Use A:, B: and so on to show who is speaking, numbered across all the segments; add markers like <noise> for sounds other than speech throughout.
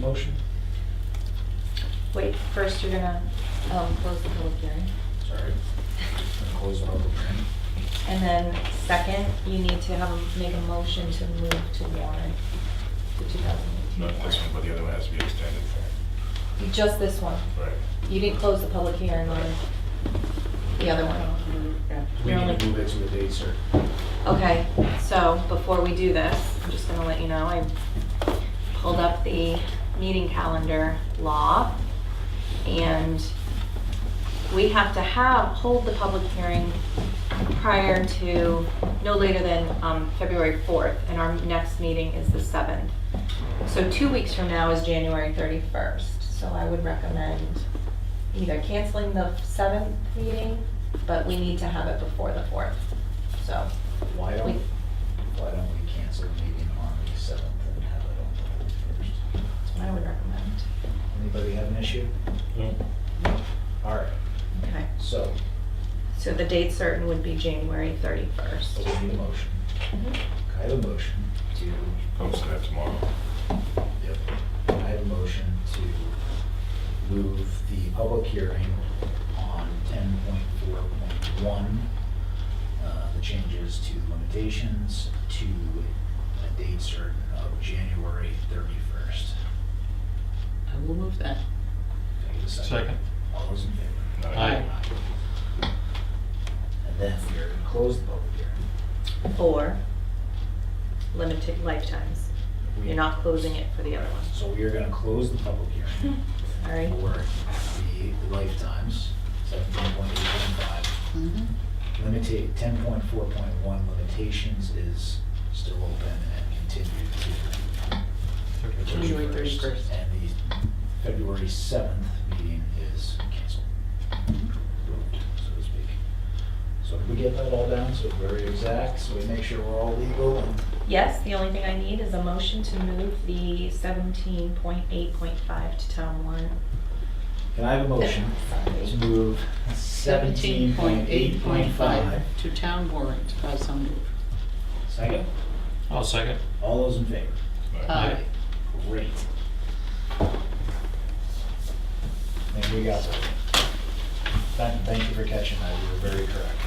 A: motion?
B: Wait, first you're gonna um, close the public hearing.
A: Sorry. Close the public hearing.
B: And then second, you need to have, a- make a motion to move to warrant the 2018
C: Not this
B: warrant.
C: one, but the other one has to be extended.
B: Just this one.
C: Right.
B: You didn't close the public hearing on the other one.
A: We need to move it to a date, sir.
B: Okay, so before we do this, I'm just gonna let you know, I pulled up the meeting calendar law. And we have to have, hold the public hearing prior to, no later than um, February 4th. And our next meeting is the 7th. So two weeks from now is January 31st. So I would recommend either canceling the 7th meeting, but we need to have it before the 4th. So
D: Why don't,
B: Wait.
D: why don't we cancel the meeting on the seventh and have it on the thirty-first?
B: That's what I would recommend.
D: Anybody have an issue? All right,
B: Okay.
D: so,
B: So the date certain would be January
D: we
B: 31st.
D: need a motion.
B: Mm-hmm.
D: I have a motion to,
C: Post that tomorrow.
D: yep, I have a motion to move the public hearing on ten point four point one, uh, the changes to limitations to a date certain of January thirty-first.
E: I will move that.
F: Second.
D: All those in favor?
C: Not-
F: Aye.
D: And then we're gonna close the public hearing.
B: Or limited lifetimes. You're not closing it for the other one.
D: So we are gonna close the public hearing
B: <laughs> Sorry.
D: for the lifetimes, seventeen point eight one five. Limited, ten point four point one limitations is still open and continued to,
E: January 31st.
D: and the February seventh meeting is canceled. Moved, So to speak. So if we get that all down, so very exact, so we make sure we're all legal and
B: Yes, the only thing I need is a motion to move the 17.8.5 to town one.
D: Can I have a motion to move seventeen point eight point five?
E: To town warrant, I so move.
D: Second,
F: I'll second.
D: all those in favor?
E: Uh,
F: Aye.
D: Great. And we got that. Thank, thank you for catching that, you were very correct.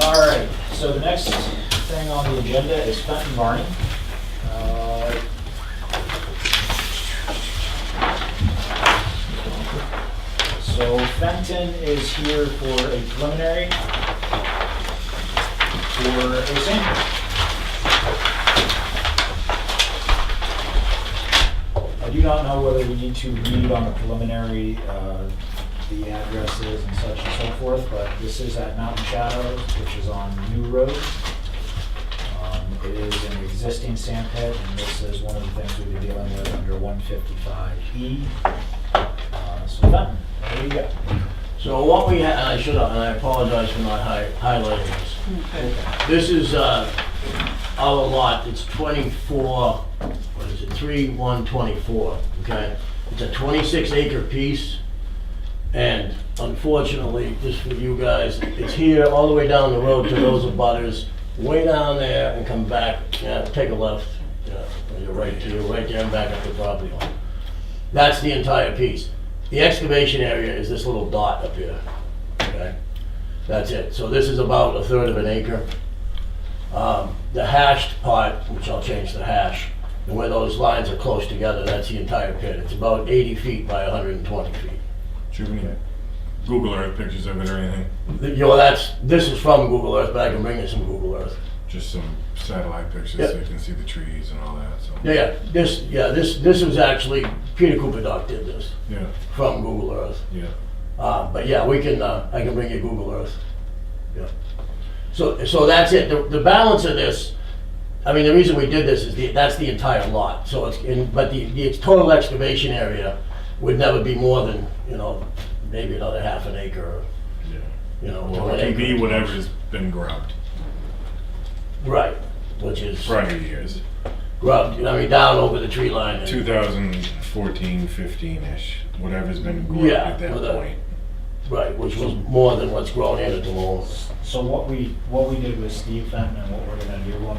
D: All right, so the next thing on the agenda is Fenton Barney. Uh, So Fenton is here for a preliminary for a sample. I do not know whether we need to read on the preliminary, uh, the addresses and such and so forth, but this is at Mountain Shadows, which is on New Road. Um, It is an existing sand pit, and this is one of the things we've been dealing with under 155E. Uh, So, Fenton, there you go.
G: So what we, ha- I should have, and I apologize for not hi- highlighting this.
E: Okay.
G: This is uh, our lot, it's 24, what is it, 3124, okay? It's a 26 acre piece, and unfortunately, just for you guys, it's here all the way down the road to those abutters, way down there and come back, yeah, take a left, yeah, or you're right to, right there and back up the property line. That's the entire piece. The excavation area is this little dot up here, okay? That's it. So this is about a third of an acre. Um, The hashed part, which I'll change to hash, and where those lines are close together, that's the entire pit. It's about 80 feet by 120 feet.
C: Do you have any Google Earth pictures of it or anything?
G: Th- You know, that's, this is from Google Earth, but I can bring you some Google Earth.
C: Just some satellite pictures
G: Yep.
C: so you can see the trees and all that, so.
G: Yeah, Yeah, this, yeah, this, this was actually, Peter Cooper Doc did this
C: Yeah,
G: from Google Earth.
C: yeah.
G: Uh, But yeah, we can, uh, I can bring you Google Earth. Yeah. So, so that's it. The the balance of this, I mean, the reason we did this is the- that's the entire lot. So it's, in- but the, the total excavation area would never be more than, you know, maybe another half an acre, or,
C: yeah.
G: you know.
C: Well,
G: one
C: it can be
G: acre.
C: whatever's been grubbed
G: Right, which is
C: prior years,
G: grubbed, I mean, down over the tree line. and-
C: 2014, 15-ish, whatever's been grubbed
G: Yeah,
C: at that
G: with a-
C: point.
G: Right, which was more than what's grown in at the moment.
D: So what we, what we did with Steve Fenton and what we're gonna do, we'll